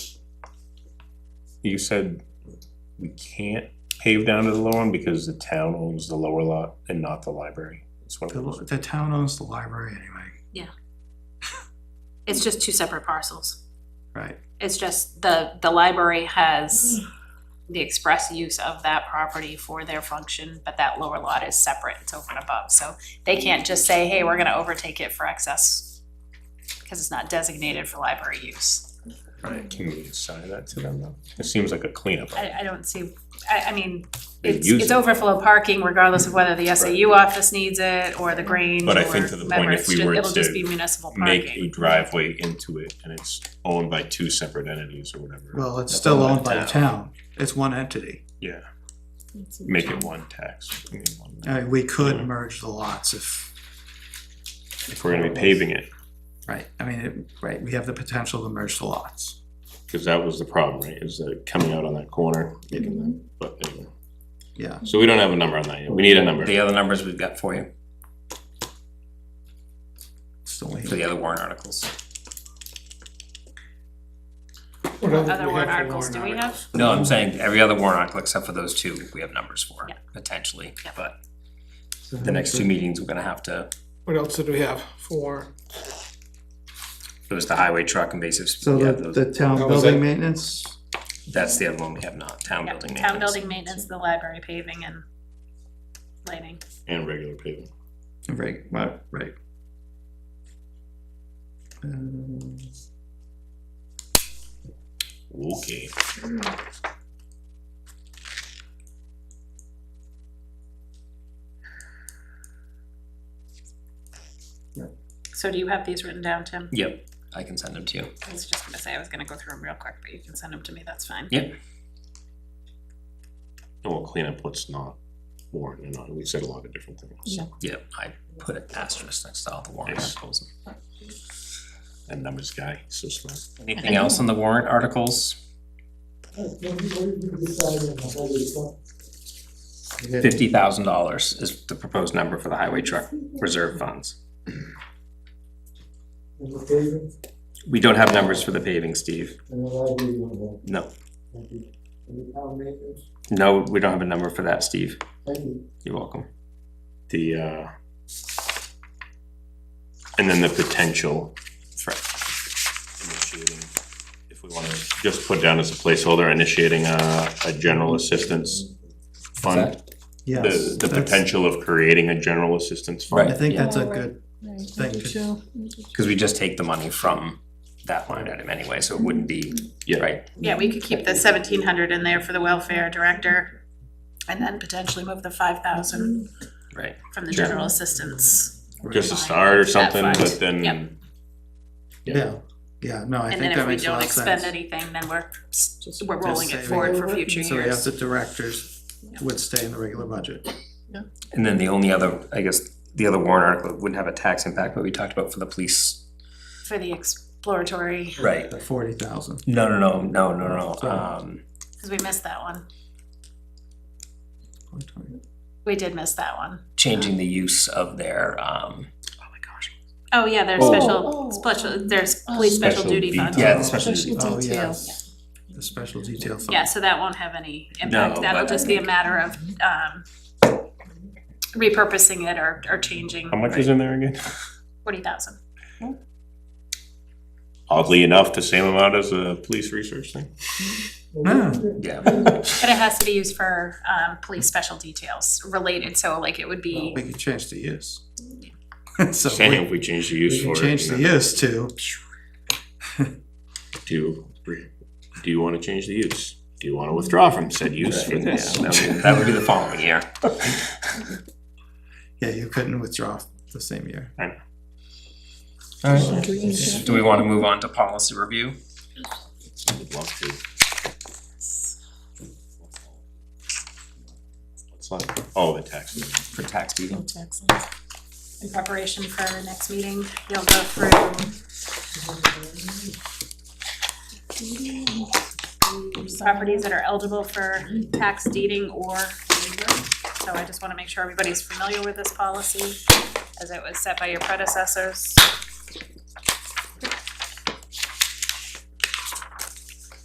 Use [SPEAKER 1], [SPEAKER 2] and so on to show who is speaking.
[SPEAKER 1] you said we can't pave down to the low one because the town owns the lower lot and not the library? It's one of
[SPEAKER 2] The,
[SPEAKER 1] those,
[SPEAKER 2] the town owns the library anyway,
[SPEAKER 3] It's just two separate parcels.
[SPEAKER 2] right?
[SPEAKER 3] It's just the, the library has the express use of that property for their function, but that lower lot is separate, it's over and above, so they can't just say, hey, we're gonna overtake it for excess, because it's not designated for library use.
[SPEAKER 1] can we assign that to them though? It seems like a cleanup.
[SPEAKER 3] I, I don't see, I, I mean,
[SPEAKER 1] They
[SPEAKER 3] it's,
[SPEAKER 1] use
[SPEAKER 3] it's
[SPEAKER 1] it.
[SPEAKER 3] overflow parking regardless of whether the SAU office needs it, or the Grange, or
[SPEAKER 1] But I think to the point,
[SPEAKER 3] whatever,
[SPEAKER 1] if
[SPEAKER 3] it's
[SPEAKER 1] we
[SPEAKER 3] ju-
[SPEAKER 1] were
[SPEAKER 3] it'll just
[SPEAKER 1] to
[SPEAKER 3] be municipal parking.
[SPEAKER 1] Make a driveway into it and it's owned by two separate entities or whatever.
[SPEAKER 2] Well, it's
[SPEAKER 1] That's
[SPEAKER 2] still owned by the town. It's one entity.
[SPEAKER 1] Yeah, make it one tax. I mean, one-
[SPEAKER 2] I mean, we could
[SPEAKER 1] Yeah.
[SPEAKER 2] merge the lots if,
[SPEAKER 1] If we're gonna be paving it,
[SPEAKER 2] right, I mean, it- right, we have the potential to merge the lots.
[SPEAKER 1] cause that was the problem, right, is that coming out on that corner, making that, but anyway.
[SPEAKER 2] Yeah,
[SPEAKER 1] So we don't have a number on that yet, we need a number.
[SPEAKER 4] The other numbers we've got for you,
[SPEAKER 2] it's the only.
[SPEAKER 4] for the other warrant articles.
[SPEAKER 5] What
[SPEAKER 3] Other warrant articles do we have?
[SPEAKER 4] No, I'm saying every other warrant article except for those two, we have numbers for,
[SPEAKER 3] Yeah.
[SPEAKER 4] potentially,
[SPEAKER 3] Yeah.
[SPEAKER 4] but the next two meetings, we're gonna have to,
[SPEAKER 5] What else did we have for,
[SPEAKER 4] it was the highway truck invasive. sp-
[SPEAKER 2] So
[SPEAKER 4] yeah,
[SPEAKER 2] the,
[SPEAKER 4] those-
[SPEAKER 2] the town
[SPEAKER 5] That was
[SPEAKER 2] building
[SPEAKER 5] it.
[SPEAKER 2] maintenance,
[SPEAKER 4] That's the other one we have not, town
[SPEAKER 3] Yeah,
[SPEAKER 4] building
[SPEAKER 3] Town
[SPEAKER 4] maintenance.
[SPEAKER 3] building maintenance, the library paving and lighting.
[SPEAKER 1] And regular paving.
[SPEAKER 2] right, right, right. Um,
[SPEAKER 1] Okay.
[SPEAKER 3] So do you have these written down, Tim?
[SPEAKER 4] Yep, I can send them to you.
[SPEAKER 3] I was just gonna say, I was gonna go through them real quick, but you can send them to me, that's fine.
[SPEAKER 4] Yep,
[SPEAKER 1] And we'll clean up what's not warrant and not, we said a lot of different things.
[SPEAKER 3] Yeah.
[SPEAKER 4] yep, I put an asterisk next to all the warrant
[SPEAKER 1] Yes.
[SPEAKER 4] articles.
[SPEAKER 1] And numbers guy, so smart.
[SPEAKER 4] Anything else on the warrant articles? Fifty thousand dollars is the proposed number for the highway truck reserve funds. We don't have numbers for the paving, Steve. No, no, we don't have a number for that, Steve. You're welcome.
[SPEAKER 1] The, uh, and then the potential for initiating, if we wanna just put down as a placeholder, initiating a, a general assistance fund.
[SPEAKER 2] Yes.
[SPEAKER 1] The, the
[SPEAKER 2] that's-
[SPEAKER 1] potential of creating a general assistance
[SPEAKER 2] I
[SPEAKER 1] fund.
[SPEAKER 4] Right.
[SPEAKER 2] think
[SPEAKER 4] Yeah.
[SPEAKER 2] that's a good, Thank you.
[SPEAKER 4] Because we just take the money from that line item anyway, so it wouldn't be,
[SPEAKER 1] Yeah.
[SPEAKER 4] right?
[SPEAKER 3] Yeah, we could keep the seventeen hundred in there for the welfare director and then potentially move the five thousand
[SPEAKER 4] Right.
[SPEAKER 3] from the
[SPEAKER 1] Sure.
[SPEAKER 3] general assistance.
[SPEAKER 1] Just a start or
[SPEAKER 3] That
[SPEAKER 1] something,
[SPEAKER 3] fund.
[SPEAKER 1] but
[SPEAKER 3] Yep.
[SPEAKER 1] then, Yeah.
[SPEAKER 2] yeah, yeah, no, I
[SPEAKER 3] And
[SPEAKER 2] think
[SPEAKER 3] then
[SPEAKER 2] that
[SPEAKER 3] if we
[SPEAKER 2] makes a
[SPEAKER 3] don't
[SPEAKER 2] lot of
[SPEAKER 3] expend
[SPEAKER 2] sense.
[SPEAKER 3] anything, then we're, we're rolling it
[SPEAKER 2] saving.
[SPEAKER 3] forward for future years.
[SPEAKER 2] So we have the directors would stay in the regular budget.
[SPEAKER 4] And then the only other, I guess, the other warrant article wouldn't have a tax impact, but we talked about for the police.
[SPEAKER 3] For the exploratory,
[SPEAKER 4] Right.
[SPEAKER 2] The forty thousand.
[SPEAKER 4] No, no, no, no, no, no, um,
[SPEAKER 3] cause we missed that one. We did miss that one.
[SPEAKER 4] changing the use of their, um, oh my gosh.
[SPEAKER 3] Oh, yeah, there's
[SPEAKER 1] Oh.
[SPEAKER 3] special,
[SPEAKER 6] Oh,
[SPEAKER 3] special,
[SPEAKER 6] um,
[SPEAKER 3] there's
[SPEAKER 6] uh,
[SPEAKER 3] police special
[SPEAKER 1] Special
[SPEAKER 3] duty fund.
[SPEAKER 1] detail.
[SPEAKER 4] Yeah, the special,
[SPEAKER 6] Special
[SPEAKER 2] Oh,
[SPEAKER 6] detail.
[SPEAKER 2] yes, the special detail fund.
[SPEAKER 3] Yeah, so that won't have any impact,
[SPEAKER 4] No,
[SPEAKER 3] that'll
[SPEAKER 4] but-
[SPEAKER 3] just be a matter of, um, repurposing it or, or changing
[SPEAKER 1] how much is in there again?
[SPEAKER 3] forty thousand.
[SPEAKER 1] Oddly enough, the same amount as a police research thing.
[SPEAKER 2] No,
[SPEAKER 4] yeah,
[SPEAKER 3] But it has to be used for, um, police special details related, so like it would be,
[SPEAKER 2] we could change the use. So
[SPEAKER 1] Saying
[SPEAKER 2] we,
[SPEAKER 1] if we change the
[SPEAKER 2] we
[SPEAKER 1] use for
[SPEAKER 2] can
[SPEAKER 1] it.
[SPEAKER 2] change the
[SPEAKER 1] and then
[SPEAKER 2] use to,
[SPEAKER 1] Do, do you wanna change the use? Do you wanna withdraw from said use for
[SPEAKER 4] yeah,
[SPEAKER 1] this?
[SPEAKER 4] that would be- that would be the following year.
[SPEAKER 2] yeah, you couldn't withdraw the same year.
[SPEAKER 4] Alright. Do we wanna move on to policy review?
[SPEAKER 1] Would love to. It's like all Oh, the taxes.
[SPEAKER 4] For tax meeting?
[SPEAKER 3] in preparation for our next meeting, you'll go through properties that are eligible for tax deeding or waiver. So I just wanna make sure everybody's familiar with this policy as it was set by your predecessors.